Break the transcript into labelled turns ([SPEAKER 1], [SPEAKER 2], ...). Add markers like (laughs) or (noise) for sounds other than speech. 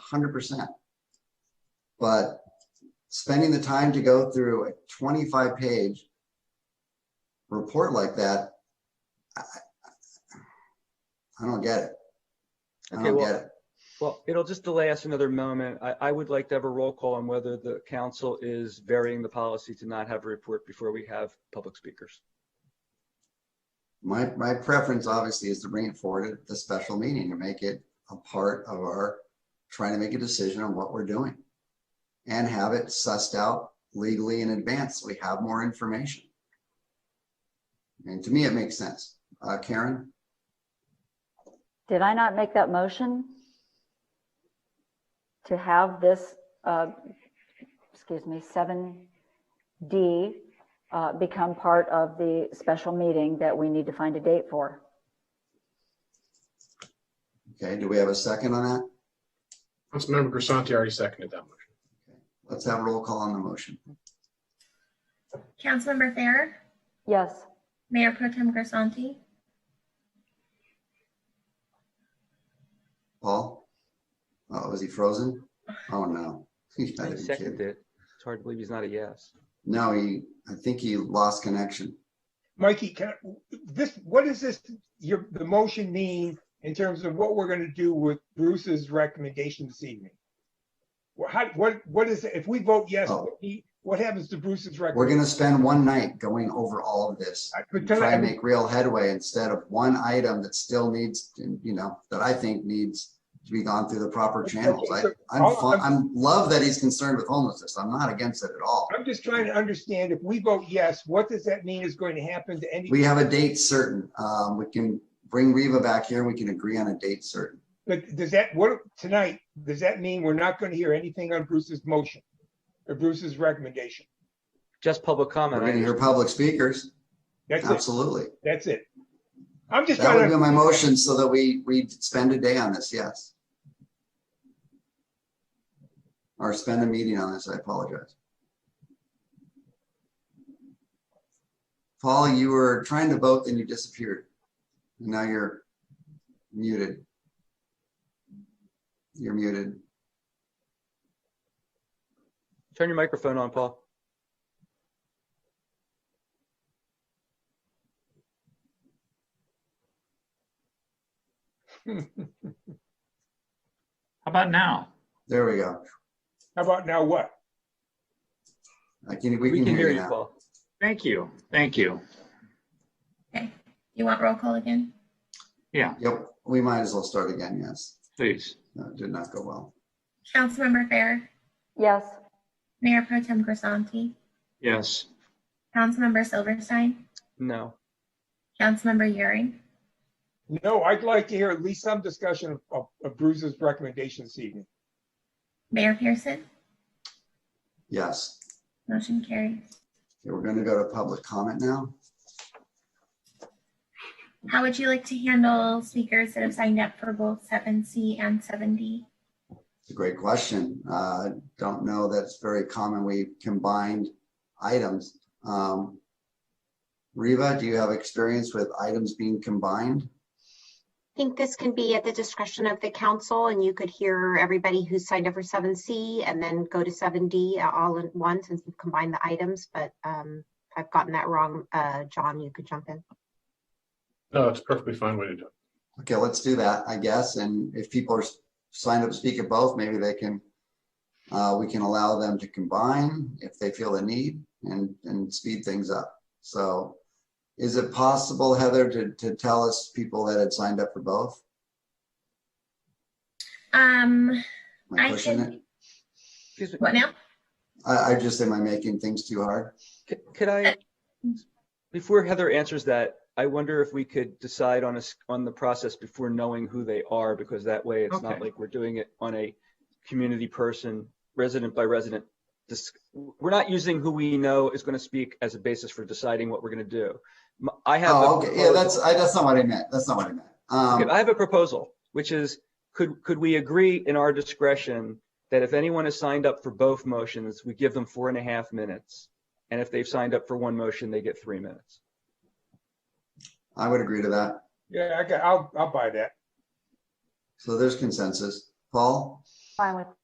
[SPEAKER 1] hundred percent. But spending the time to go through a twenty-five page report like that, I, I- I don't get it. I
[SPEAKER 2] Okay,
[SPEAKER 1] don't
[SPEAKER 2] well-
[SPEAKER 1] get it.
[SPEAKER 2] Well, it'll just delay us another moment. I, I would like to have a roll call on whether the council is varying the policy to not have a report before we have public speakers.
[SPEAKER 1] My, my preference obviously is to bring it forward at the special meeting and make it a part of our, trying to make a decision on what we're doing. And have it sussed out legally in advance. so We have more information. And to me, it makes sense. Uh, Karen,
[SPEAKER 3] Did I not make that motion? To have this, uh, excuse me, 7D uh, become part of the special meeting that we need to find a date for?
[SPEAKER 1] okay, do we have a second on that?
[SPEAKER 4] Councilmember Grisanti already seconded that motion.
[SPEAKER 1] Let's have a roll call on the motion.
[SPEAKER 5] Councilmember Farrer,
[SPEAKER 3] Yes,
[SPEAKER 5] Mayor Pro Tem Grisanti,
[SPEAKER 1] Paul? Oh, was he frozen? Oh, no. (laughs) You
[SPEAKER 2] I
[SPEAKER 1] gotta be kidding.
[SPEAKER 2] seconded it. It's hard to believe he's not a yes.
[SPEAKER 1] No, he, I think he lost connection.
[SPEAKER 6] Mikey, can, this, what does this, your, the motion mean in terms of what we're gonna do with Bruce's recommendation this evening? Wha- How, what, what is, if we vote yes,
[SPEAKER 1] Oh.
[SPEAKER 6] what he- what happens to Bruce's
[SPEAKER 1] We're
[SPEAKER 6] recommendation?
[SPEAKER 1] gonna spend one night going over all of this.
[SPEAKER 6] I- but
[SPEAKER 1] and
[SPEAKER 6] can I-
[SPEAKER 1] Try and make real headway instead of one item that still needs, to, you know, that I think needs to be gone through the proper channels. I,
[SPEAKER 6] so-
[SPEAKER 1] I'm,
[SPEAKER 6] I'll-
[SPEAKER 1] fu- I'm, love that he's concerned with homelessness. I'm not against it at all.
[SPEAKER 6] I'm just trying to understand, if we vote yes, what does that mean is going to happen to any,
[SPEAKER 1] We have a date certain. Um, we can bring Reva back here. We can agree on a date certain.
[SPEAKER 6] but does that, what, tonight, does that mean we're not gonna hear anything on Bruce's motion? Or Bruce's recommendation?
[SPEAKER 2] Just public
[SPEAKER 1] We're
[SPEAKER 2] comment.
[SPEAKER 1] gonna hear
[SPEAKER 2] I-
[SPEAKER 1] public speakers.
[SPEAKER 6] That's it,
[SPEAKER 1] Absolutely.
[SPEAKER 6] that's it. I'm just
[SPEAKER 1] That would
[SPEAKER 6] trying
[SPEAKER 1] be
[SPEAKER 6] to,
[SPEAKER 1] my motion so that we, we spend a day on this, yes. Or spend a meeting on this, I apologize. Paul, you were trying to vote, then you disappeared. Now you're muted. You're muted.
[SPEAKER 2] Turn your microphone on, Paul.
[SPEAKER 7] How about now?
[SPEAKER 1] There we go.
[SPEAKER 6] how about now what?
[SPEAKER 1] I can, we can hear you now.
[SPEAKER 2] Paul.
[SPEAKER 7] Thank you. Thank you.
[SPEAKER 5] you want roll call again?
[SPEAKER 7] Yeah,
[SPEAKER 1] Yep, we might as well start again, yes.
[SPEAKER 7] please.
[SPEAKER 1] No, it did not go well.
[SPEAKER 5] Councilmember Farrer,
[SPEAKER 3] yes,
[SPEAKER 5] Mayor Pro Tem Grisanti,
[SPEAKER 7] Yes.
[SPEAKER 5] Councilmember Silverstein,
[SPEAKER 2] No.
[SPEAKER 5] Councilmember Euring,
[SPEAKER 6] No, I'd like to hear at least some discussion of- of, of Bruce's recommendation this evening.
[SPEAKER 5] Mayor Pearson,
[SPEAKER 1] Yes.
[SPEAKER 5] motion carries.
[SPEAKER 1] Okay, we're gonna go to public comment now.
[SPEAKER 5] How would you like to handle speakers that have signed up for both 7C and 7D?
[SPEAKER 1] It's a great question. Uh, don't know, that's very common. We combined items. Um, Reva, do you have experience with items being combined?
[SPEAKER 8] think this can be at the discretion of the council and you could hear everybody who signed up for seven C and then go to seven D uh, all at once since we've combined the items, but um, if I've gotten that wrong, uh, John, you could jump in.
[SPEAKER 4] No, it's a perfectly fine way to do it.
[SPEAKER 1] Okay, let's do that, I guess. And if people are s- signed up to speak at both, maybe they can, uh, we can allow them to combine if they feel the need and, and speed things up. So is it possible, Heather, to, to tell us people that had signed up for both?
[SPEAKER 5] Um,
[SPEAKER 1] Am I
[SPEAKER 5] I
[SPEAKER 1] pushing it?
[SPEAKER 5] can,
[SPEAKER 2] Excuse me.
[SPEAKER 5] what now?
[SPEAKER 1] I, I just, am I making things too hard?
[SPEAKER 2] C- Could I, before Heather answers that, I wonder if we could decide on a, s- on the process before knowing who they are, because that way it's not
[SPEAKER 7] Okay.
[SPEAKER 2] like we're doing it on a community person, resident by resident. dis- We're not using who we know is going to speak as a basis for deciding what we're going to do. M- I have. a
[SPEAKER 1] Oh, okay, yeah,
[SPEAKER 2] proposal.
[SPEAKER 1] that's, I, that's not what I meant, that's not what I meant.
[SPEAKER 2] Okay, I
[SPEAKER 1] Um,
[SPEAKER 2] have a proposal, which is, could, could we agree in our discretion that if anyone has signed up for both motions, we give them four and a half minutes? And if they've signed up for one motion, they get three minutes?
[SPEAKER 1] I would agree to that,
[SPEAKER 6] Yeah, I got, I'll, I'll buy that.
[SPEAKER 1] so there's consensus. Paul,
[SPEAKER 3] fine with